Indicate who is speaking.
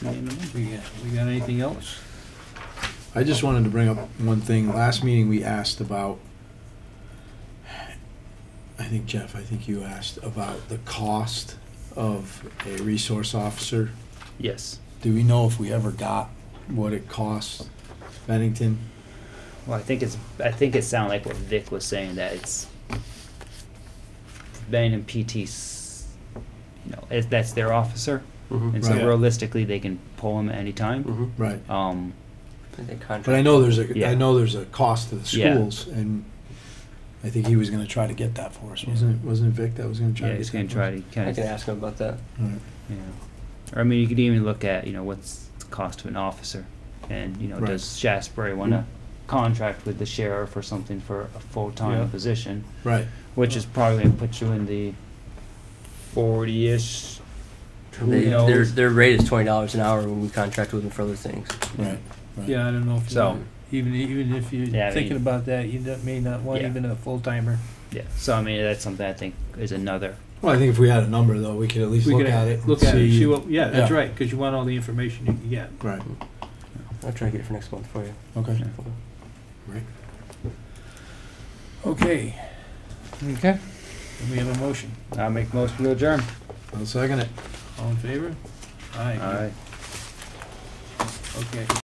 Speaker 1: we got anything else?
Speaker 2: I just wanted to bring up one thing. Last meeting, we asked about, I think Jeff, I think you asked about the cost of a resource officer.
Speaker 3: Yes.
Speaker 2: Do we know if we ever got what it costs Bennington?
Speaker 3: Well, I think it's, I think it sounded like what Vic was saying, that it's Ben and PT's, no, it- that's their officer. And so
Speaker 2: Right.
Speaker 3: realistically, they can pull him at any
Speaker 4: Mm-hmm.
Speaker 3: time.
Speaker 2: Right.
Speaker 3: Um,
Speaker 2: But I know there's a,
Speaker 3: Yeah.
Speaker 2: I know there's a cost to the
Speaker 3: Yeah.
Speaker 2: schools, and I think he was gonna try to get that for us, wasn't it? Wasn't it Vic that was gonna try?
Speaker 3: yeah,
Speaker 2: to
Speaker 3: he's
Speaker 2: get
Speaker 3: gonna
Speaker 2: that for
Speaker 3: try
Speaker 2: us?
Speaker 3: to
Speaker 4: I
Speaker 3: kind
Speaker 4: can
Speaker 3: of,
Speaker 4: ask him about that.
Speaker 2: Alright.
Speaker 3: yeah. Or I mean, you could even look at, you know, what's the cost to an officer? And, you know,
Speaker 2: Right.
Speaker 3: does Shasberry wanna contract with the sheriff or something for a
Speaker 1: Yeah.
Speaker 3: full-time position?
Speaker 2: Right,
Speaker 3: Which is probably gonna put you in the forty-ish. Who
Speaker 4: They, their,
Speaker 3: knows?
Speaker 4: their rate is twenty dollars an hour when we contract with them for other things.
Speaker 2: right. right.
Speaker 1: Yeah, I don't know if,
Speaker 3: So-
Speaker 1: you- even, even if you're
Speaker 3: Yeah, I
Speaker 1: thinking
Speaker 3: mean-
Speaker 1: about that, you don't- may not want
Speaker 3: Yeah.
Speaker 1: even a full-timer.
Speaker 3: Yeah, so I mean, that's something I think is another,
Speaker 2: Well, I think if we had a number, though, we could at least
Speaker 1: We
Speaker 2: look
Speaker 1: could
Speaker 2: at it.
Speaker 1: Look at it, see what, yeah, that's
Speaker 2: Yeah.
Speaker 1: right, because you want all the information you can get.
Speaker 2: Right,
Speaker 4: I'll try to get it for next month for you.
Speaker 2: okay.
Speaker 1: Okay,
Speaker 3: Okay.
Speaker 1: and we have a motion.
Speaker 3: I make motion to adjourn.
Speaker 2: I'll second it.
Speaker 1: All in favor? Aye.
Speaker 3: All right.
Speaker 1: Okay.